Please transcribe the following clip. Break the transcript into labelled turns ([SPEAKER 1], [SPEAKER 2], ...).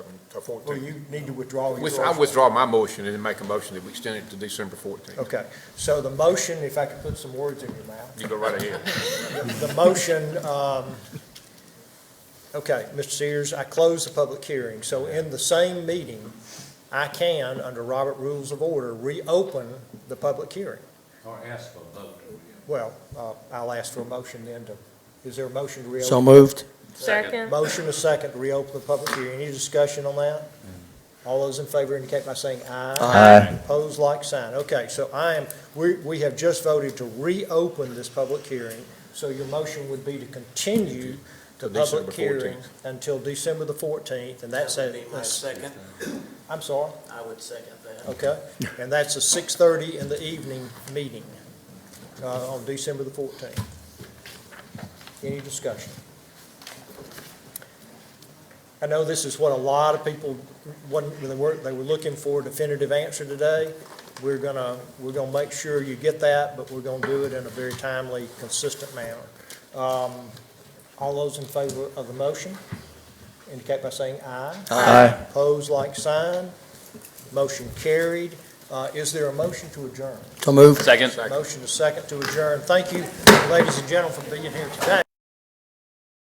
[SPEAKER 1] December
[SPEAKER 2] Well,
[SPEAKER 1] fourteenth.
[SPEAKER 2] you need to withdraw
[SPEAKER 3] With-
[SPEAKER 2] yours.
[SPEAKER 3] I withdraw my motion and make a motion that we extend it to December 14th.
[SPEAKER 2] Okay, so the motion, if I could put some words in your mouth,
[SPEAKER 3] You go right ahead.
[SPEAKER 2] the motion, um, okay, Mr. Sears, I close the public hearing. So in the same meeting, I can, under Robert Rules of Order, reopen the public hearing.
[SPEAKER 4] Or ask for a vote.
[SPEAKER 2] Well, uh, I'll ask for a motion then to, is there a motion to reopen?
[SPEAKER 5] So moved.
[SPEAKER 6] Second.
[SPEAKER 2] Motion a second to reopen the public hearing. Any discussion on that? All those in favor indicate by saying aye.
[SPEAKER 5] Aye.
[SPEAKER 2] Pose like sign. Okay, so I am, we, we have just voted to reopen this public hearing. So your motion would be to continue the
[SPEAKER 3] To December
[SPEAKER 2] public hearing
[SPEAKER 3] 14th.
[SPEAKER 2] until December the fourteenth, and that's
[SPEAKER 1] That would be my
[SPEAKER 2] a,
[SPEAKER 1] second.
[SPEAKER 2] I'm sorry,
[SPEAKER 1] I would second that.
[SPEAKER 2] okay? And that's a six-thirty in the evening meeting, uh, on December the fourteenth. Any discussion? I know this is what a lot of people, wasn't they were, they were looking for a definitive answer today. We're gonna, we're gonna make sure you get that, but we're gonna do it in a very timely, consistent manner. Um, All those in favor of the motion indicate by saying aye.
[SPEAKER 5] Aye.
[SPEAKER 2] Pose like sign. Motion carried. Uh, Is there a motion to adjourn?
[SPEAKER 5] So moved.
[SPEAKER 3] Second.
[SPEAKER 2] Motion is second to adjourn. Thank you, ladies and gentlemen, for being here today.